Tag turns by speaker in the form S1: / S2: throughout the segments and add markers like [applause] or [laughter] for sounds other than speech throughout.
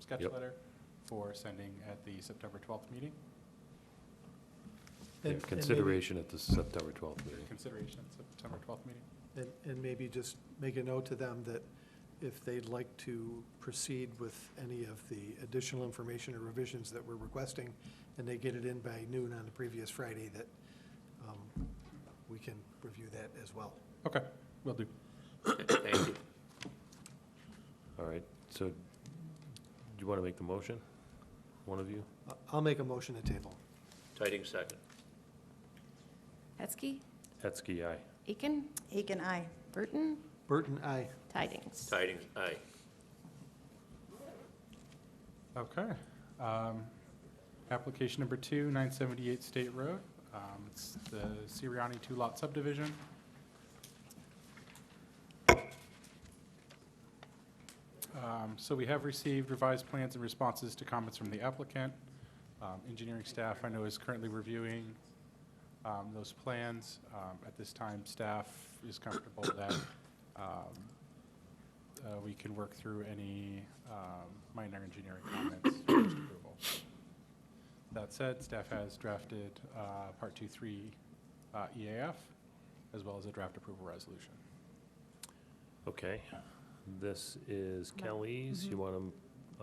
S1: sketch
S2: Yep.
S1: letter for sending at the September 12th meeting,
S2: Yeah,
S3: And- and maybe-
S2: Consideration at the September 12th meeting.
S1: consideration at September 12th meeting.
S3: And, and maybe just make a note to them that if they'd like to proceed with any of the additional information or revisions that we're requesting, and they get it in by noon on the previous Friday, that um, we can review that as well.
S1: Okay, will do.
S4: Thank you.
S2: All right, so do you want to make the motion? One of you?
S3: I- I'll make a motion to table.
S4: Tidings second.
S5: Hetzke,
S2: Hetzke, aye.
S5: Aiken,
S6: Aiken, aye.
S5: Burton,
S3: Burton, aye.
S5: Tidings.
S4: Tidings, aye.
S1: Okay. Um, Application number two, 978 State Road. Um, It's the Siriani two-lot subdivision. Um, So we have received revised plans and responses to comments from the applicant. Um, Engineering staff, I know, is currently reviewing um, those plans. Um, At this time, staff is comfortable that um, uh, we can work through any um, minor engineering comments for this approval. That said, staff has drafted uh, Part 2-3 uh, EAF, as well as a draft approval resolution.
S2: Okay, this is Kelly's. You want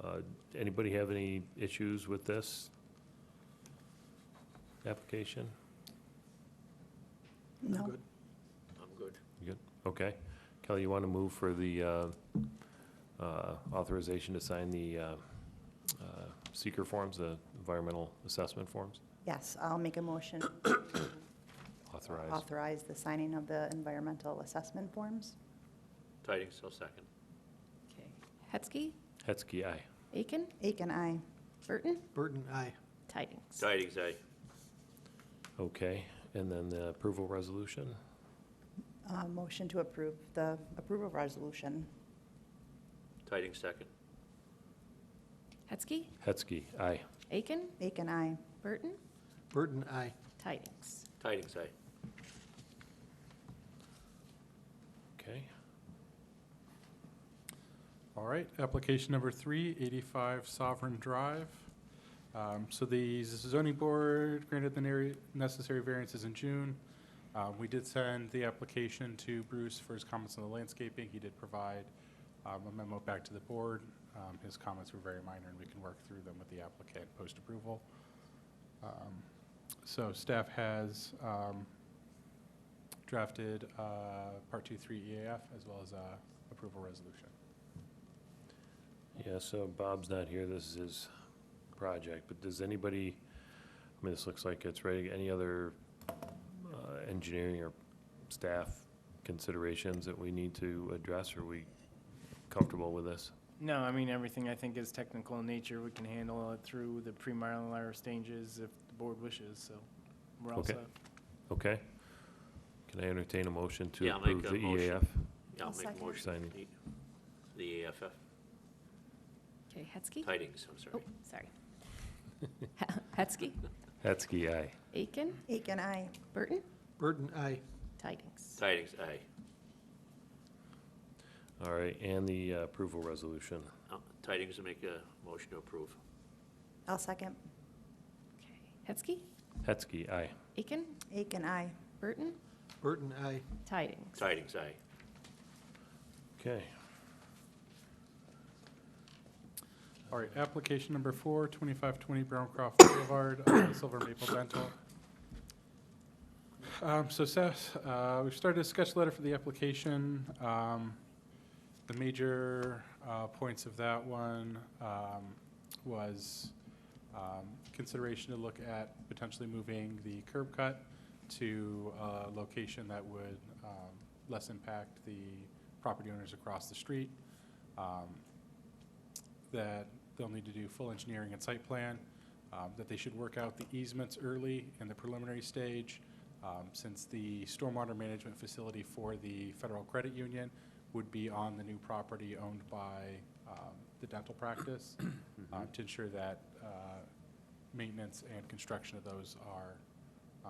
S2: to, anybody have any issues with this application?
S6: No.
S3: Good.
S4: I'm good.
S2: Okay. Kelly, you want to move for the uh, uh, authorization to sign the uh, uh, seeker forms, the environmental assessment forms?
S6: Yes, I'll make a motion
S2: Authorized.
S6: authorize the signing of the environmental assessment forms.
S4: Tidings, I'll second.
S5: Okay. Hetzke,
S2: Hetzke, aye.
S5: Aiken,
S6: Aiken, aye.
S5: Burton,
S3: Burton, aye.
S5: Tidings.
S4: Tidings, aye.
S2: Okay, and then the approval resolution?
S6: Uh, Motion to approve the approval resolution.
S4: Tidings second.
S5: Hetzke,
S2: Hetzke, aye.
S5: Aiken,
S6: Aiken, aye.
S5: Burton,
S3: Burton, aye.
S5: Tidings.
S4: Tidings, aye.
S2: Okay,
S1: All right, application number three, 85 Sovereign Drive. Um, So the zoning board granted the neri- necessary variances in June. Uh, We did send the application to Bruce for his comments on the landscaping. He did provide um, a memo back to the board. Um, His comments were very minor, and we can work through them with the applicant post-approval. Um, So staff has um, drafted uh, Part 2-3 EAF as well as a approval resolution.
S2: yeah, so Bob's not here, this is his project, but does anybody, I mean, this looks like it's ready, any other uh, engineering or staff considerations that we need to address, are we comfortable with this?
S7: No, I mean, everything I think is technical in nature. We can handle it through the pre-mylar stages if the board wishes, so we're all
S2: Okay.
S7: set.
S2: Okay? Can I entertain a motion to
S4: Yeah, I'll make
S2: approve
S4: a
S2: the E
S4: motion.
S2: EAF?
S4: Yeah,
S6: I'll
S4: I'll make
S6: second.
S4: a motion.
S2: Signing.
S4: The AFF,
S5: Okay, Hetzke.
S4: tidings, I'm
S5: Oh,
S4: sorry.
S5: sorry. [laughs] Hetzke,
S2: Hetzke, aye.
S5: Aiken,
S6: Aiken, aye.
S5: Burton,
S3: Burton, aye.
S5: Tidings.
S4: Tidings, aye.
S2: All right, and the uh, approval resolution.
S4: Uh, Tidings will make a motion to approve.
S6: I'll second.
S5: Okay. Hetzke,
S2: Hetzke, aye.
S5: Aiken,
S6: Aiken, aye.
S5: Burton,
S3: Burton, aye.
S5: Tidings.
S4: Tidings, aye.
S2: Okay.
S1: All right, application number four, 2520 Browncroft Boulevard, uh, Silver Maple Dental. Um, So Seth, uh, we've started a sketch letter for the application. Um, The major uh, points of that one um, was um, consideration to look at potentially moving the curb cut to a location that would um, less impact the property owners across the street. Um, that they'll need to do full engineering and site plan, um, that they should work out the easements early in the preliminary stage, um, since the stormwater management facility for the Federal Credit Union would be on the new property owned by um, the dental practice, um, to ensure that uh, maintenance and construction of those are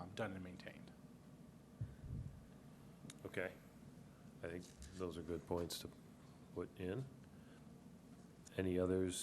S1: um, done and maintained.
S2: Okay. I think those are good points to put in. Any others